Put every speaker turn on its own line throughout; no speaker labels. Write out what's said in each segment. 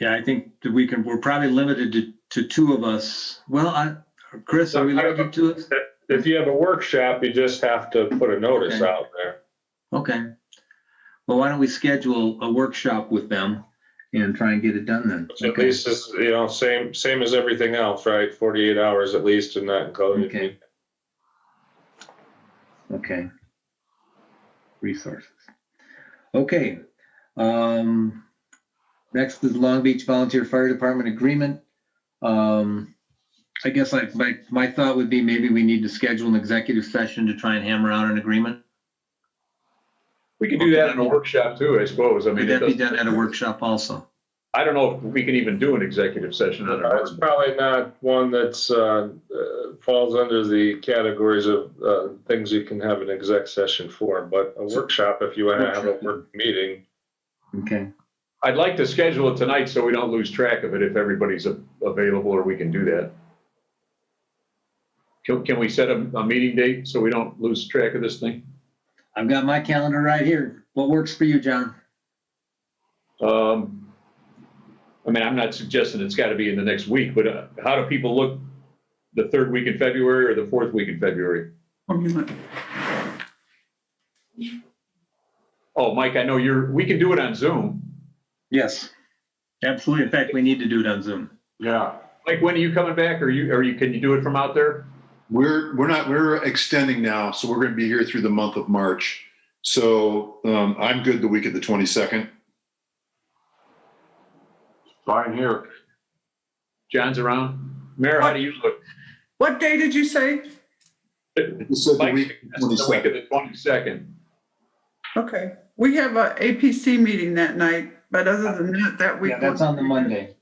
Yeah, I think that we can, we're probably limited to, to two of us. Well, I, Chris, are we limited to us?
If you have a workshop, you just have to put a notice
Okay.
out there.
Okay. Well, why don't we schedule a workshop with them and try and get it done then?
Which at
Okay.
least is, you know, same, same as everything else, right? Forty-eight hours at least and that including.
Okay. Okay. Resources. Okay. Um, next is Long Beach Volunteer Fire Department Agreement. Um, I guess I, my, my thought would be maybe we need to schedule an executive session to try and hammer out an agreement.
We can do that in a workshop too, I suppose. I
Could
mean, it
that be
doesn't,
done at a workshop also?
I don't know if we can even do an executive session on our.
That's Uh, probably not one that's, uh, uh, falls under the categories of, uh, things you can have an exec session for, but a workshop, if you wanna have a work meeting.
Okay.
I'd like to schedule it tonight so we don't lose track of it if everybody's a- available or we can do that. Can, can we set a, a meeting date so we don't lose track of this thing?
I've got my calendar right here. What works for you, John?
Um, I mean, I'm not suggesting it's got to be in the next week, but uh, how do people look the third week in February or the fourth week in February? Oh, Mike, I know you're, we can do it on Zoom.
Yes. Absolutely. In fact, we need to do it on Zoom.
Yeah,
Mike, when are you coming back? Are you, are you, can you do it from out there?
we're, we're not, we're extending now, so we're gonna be here through the month of March. So, um, I'm good the week of the twenty-second.
Fine here.
John's around. Mayor, how do you look?
What day did you say?
You said the
Mike,
week,
that's the week of the twenty-second.
Okay, we have a APC meeting that night, but other than that, that week.
Yeah, that's on the Monday.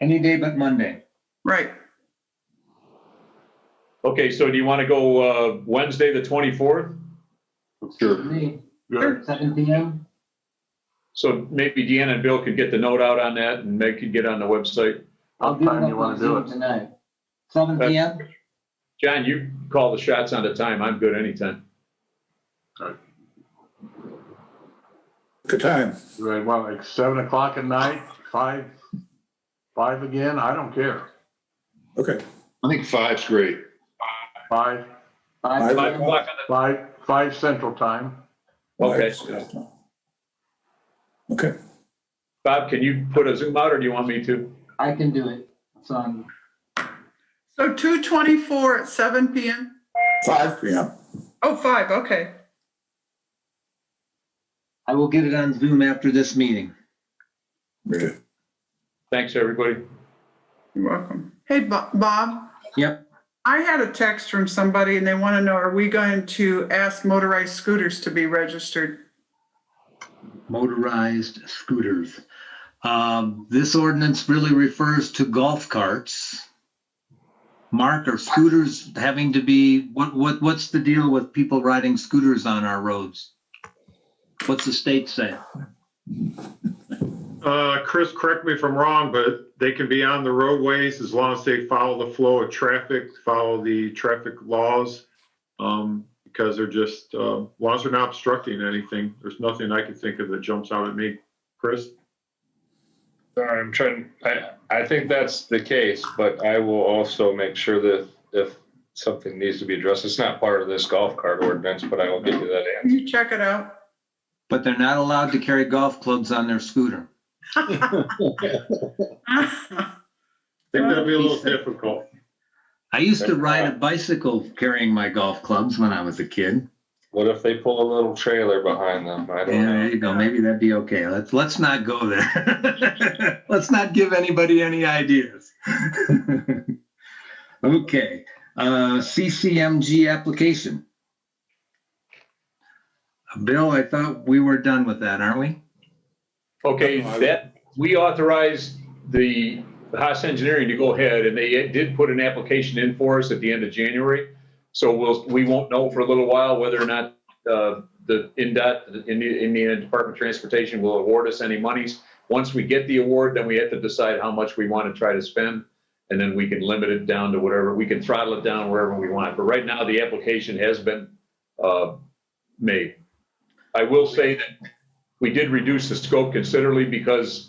Any day but Monday.
Right,
Okay, so do you want to go, uh, Wednesday, the twenty-fourth?
sure,
Me,
Sure.
Seven PM?
So maybe Deanna and Bill could get the note out on that and Meg could get on the website.
What time you wanna do it? Tonight. Seven
That's-
PM?
John, you call the shots on the time. I'm good anytime.
Good time.
Do I want like seven o'clock at night, five, five again? I don't care.
Okay.
I think five's great.
Five,
Five
Five o'clock on
five, five central time.
the- Okay.
Okay.
Bob, can you put a Zoom out or do you want me to?
I can do it. It's on,
so two twenty-four at seven PM?
Five PM.
Oh, five, okay.
I will get it on Zoom after this meeting.
Good.
Thanks, everybody.
You're welcome. Hey, Bo- Bob,
Yep.
I had a text from somebody and they want to know, are we going to ask motorized scooters to be registered?
Motorized scooters. Um, this ordinance really refers to golf carts. Mark, are scooters having to be, what, what, what's the deal with people riding scooters on our roads? What's the state say?
Uh, Chris, correct me if I'm wrong, but they can be on the roadways as long as they follow the flow of traffic, follow the traffic laws. Um, because they're just, uh, laws are not obstructing anything. There's nothing I can think of that jumps out at me. Chris?
Sorry, I'm trying,
I, I think that's the case, but I will also make sure that if something needs to be addressed, it's not part of this golf cart ordinance, but I will give you that
Can you check it out?
But they're not allowed to carry golf clubs on their scooter.
I think that'd be a little difficult.
I used to ride a bicycle carrying my golf clubs when I was a kid.
What if they pull a little trailer behind them? I
Yeah,
don't
there
know.
you go. Maybe that'd be okay. Let's let's not go there. let's not give anybody any ideas. okay. Uh, CCMG application. Uh, Bill, I thought we were done with that, aren't we?
Okay, that, we authorized the Haas Engineering to go ahead and they did put an application in for us at the end of January. So we'll, we won't know for a little while whether or not, uh, the NDOT, the Indi- Indiana Department of Transportation will award us any monies. Once we get the award, then we have to decide how much we want to try to spend. And then we can limit it down to whatever, we can throttle it down wherever we want. But right now, the application has been, uh, made. I will say that we did reduce the scope considerably because